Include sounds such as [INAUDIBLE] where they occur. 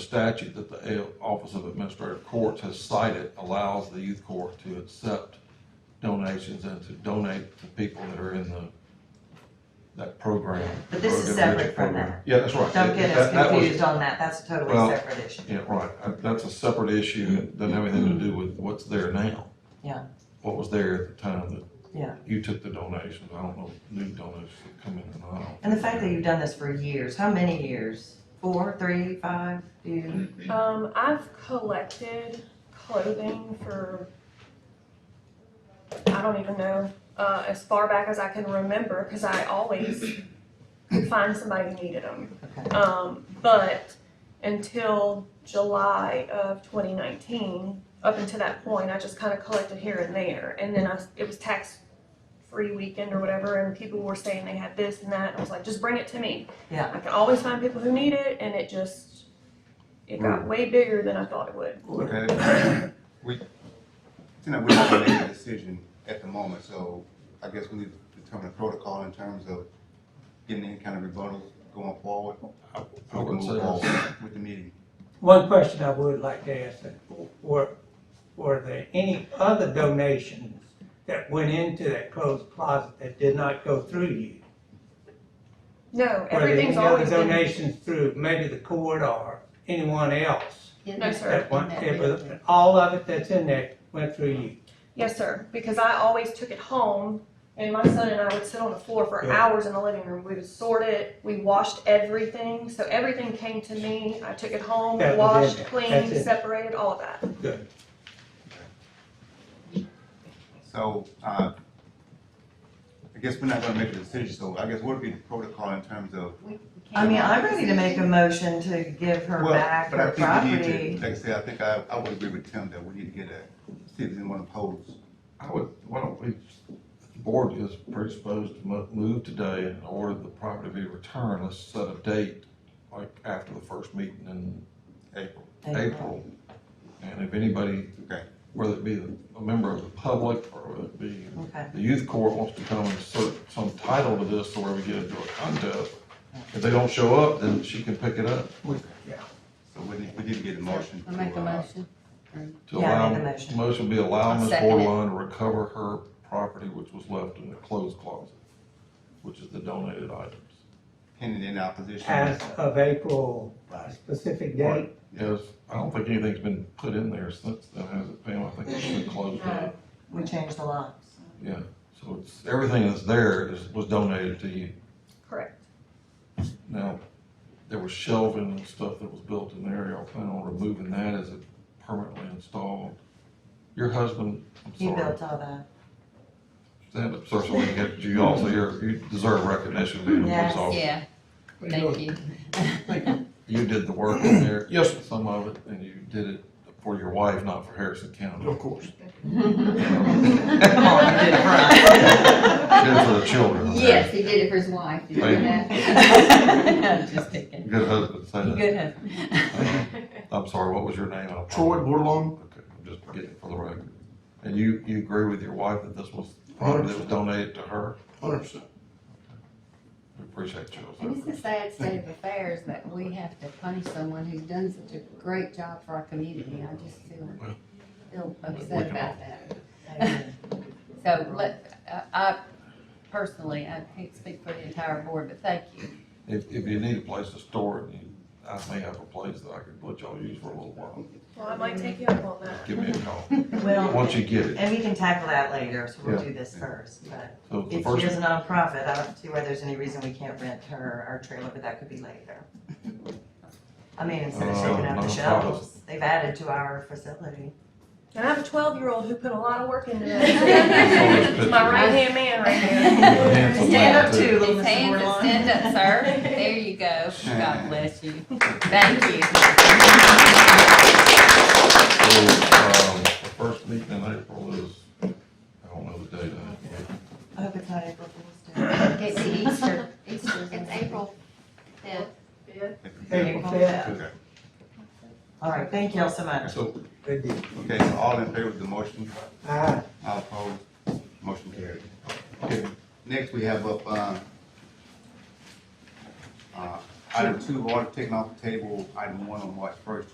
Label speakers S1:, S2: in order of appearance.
S1: statute that the A- Office of Administrative Courts has cited allows the youth court to accept donations and to donate to people that are in the, that program.
S2: But this is
S1: the individual
S2: separate from
S1: program.
S2: that.
S1: Yeah, that's right.
S2: Don't get
S1: That-
S2: us
S1: that was-
S2: confused on that, that's a totally
S1: Well,
S2: separate issue.
S1: Yeah, right, Uh, that's a separate issue, It doesn't have anything to do with what's there now.
S2: Yeah.
S1: What was there at the time that.
S2: Yeah.
S1: You took the donations, I don't know, if new donations have come in or not.
S2: And the fact that you've done this for years, how many years? Four, three, five, do you?
S3: Um, I've collected clothing for I don't even know uh, as far back as I can remember because I always could find somebody who needed them.
S2: Okay.
S3: Um, but until July of 2019, up until that point, I just kind of collected here and there, and then I it was tax free weekend or whatever, and people were saying they had this and that. And I was like, just bring it to me.
S2: Yeah.
S3: I can always find people who need it, and it just it
S4: Mm.
S3: got way bigger than I thought it would.
S5: Look at it, we, you know, we're not gonna make a decision at the moment, so I guess we need to determine a protocol in terms of getting any kind of rebuttals going forward.
S1: I
S5: We can
S1: would say
S5: move
S1: that's-
S5: forward with the meeting.
S4: One question I would like to ask, that were, were there any other donations that went into that closed closet that did not go through you?
S3: No, everything's
S4: Were
S3: always
S4: there any
S3: been.
S4: other donations through maybe the court or anyone else?
S3: No, sir.
S4: That one,
S6: that
S4: it was-
S6: building.
S4: all of it that's in there went through you?
S3: Yes, sir. Because I always took it home, and my son and I would sit on the floor for
S4: Yeah.
S3: hours in the living room. We would sort it. We washed everything, so everything came to me. I took it home,
S4: That was in
S3: washed,
S4: there.
S3: cleaned,
S4: That's it.
S3: separated, all of that.
S4: Good.
S5: So, uh, I guess we're not gonna make a decision, so I guess what would be the protocol in terms of?
S2: I mean, I'm ready to make a motion to give her
S5: Well,
S2: back
S5: but I
S2: her
S5: think we need to-
S2: property.
S5: Like I said, I think I, I would agree with Tim that we need to get a, see if there's anyone opposed.
S1: I would, why don't we, the board is predisposed to mo- move today and order the property to be returned, let's set a date, like after the first meeting in
S5: April.
S1: April. And if anybody,
S5: Okay.
S1: whether it be a member of the public or whether it be
S2: Okay,
S1: the youth court wants to come and assert some title to this, or we get into a contest. If they don't show up, then she can pick it up
S5: So we need, we need to get a motion.
S6: I make
S5: to,
S6: a
S5: uh,
S6: motion.
S1: to
S2: Yeah, I
S1: allow.
S2: made the motion.
S1: Motion be allow
S6: I'll
S1: Ms.
S6: second it.
S1: Borland to recover her property which was left in the clothes closet, which is the donated items.
S5: Pending in opposition.
S4: As of April, a
S5: Right.
S4: specific date?
S1: Yes, I don't think anything's been put in there since then, has it, Pam? I think it's been closed up.
S2: we changed the law.
S1: So it's, everything that's there is, was donated to you.
S3: Correct.
S1: Now, there was shelving and stuff that was built in there, y'all plan on removing that as it permanently installed? Your husband, I'm
S2: He
S1: sorry,
S2: built all that.
S1: stand up, sir, so we can get you also, you're, you deserve recognition, being a police
S2: Yes.
S1: officer.
S6: Yeah, thank you.
S1: You did the work in there, [CLEARS THROAT] yes, some of it, and you did it for your wife, not for Harrison County. [LAUGHS] Of course.
S2: Come on, you did it right.
S1: Did it for the children. okay?
S6: [LAUGHS] Yes, he did it for his wife. Did you know
S1: Thank
S6: that? I'm [LAUGHS] Just picking.
S1: Good husband, say that.
S6: Good husband.
S1: I'm sorry, what was your name? I
S7: Troy
S1: apologize.
S7: Bordelon,
S1: Okay, I'm just getting for the record. And you, you agree with your wife that this was property that was donated to her?
S7: hundred percent.
S1: We appreciate you.
S6: And it's a sad state of affairs that we have to punish someone who's done such a great job for our community. I just feel, feel upset about that. So let, I- I personally, I can't speak for the entire board, but thank you.
S1: If, if you need a place to store it, you- I may have a place that I could let y'all use for a little while.
S3: Well, I might take you up on that.
S1: Give me a call,
S2: Well,
S1: once you get it.
S2: and we can tackle that later, so we'll
S1: Yeah.
S2: do this first, but
S1: So the
S2: if she is
S1: first,
S2: a nonprofit, I don't see why there's any reason we can't rent her our trailer, but that could be later. I mean, instead of taking out
S1: Uh,
S2: the
S1: nonprofit.
S2: shelves, they've added to our facility.
S3: And I have a 12 year old who put a lot of work into
S4: [LAUGHS]
S1: That's
S3: that.
S1: always
S3: He's my
S1: good.
S3: right hand man right there.
S1: Handsome
S6: Stand
S1: man,
S6: up
S1: too.
S2: little
S6: His
S2: Mr.
S6: hands that
S2: Bordelon.
S6: stand up, sir. There you go. God bless you. Thank you.
S1: so, um, the first meeting in April is, I don't know the date.
S2: [LAUGHS] I hope it's not April Fool's Day.
S6: It's Easter, Easter's. in
S8: It's April fifth.
S4: April fifth?
S5: Okay.
S2: All right, thank y'all so much.
S1: So
S4: Good deal.
S5: Okay, so all in favor of the motion,
S4: Ah.
S5: all opposed, motion carried. Okay, next we have up, um, uh, Item two, order taken off the table, item one on March first,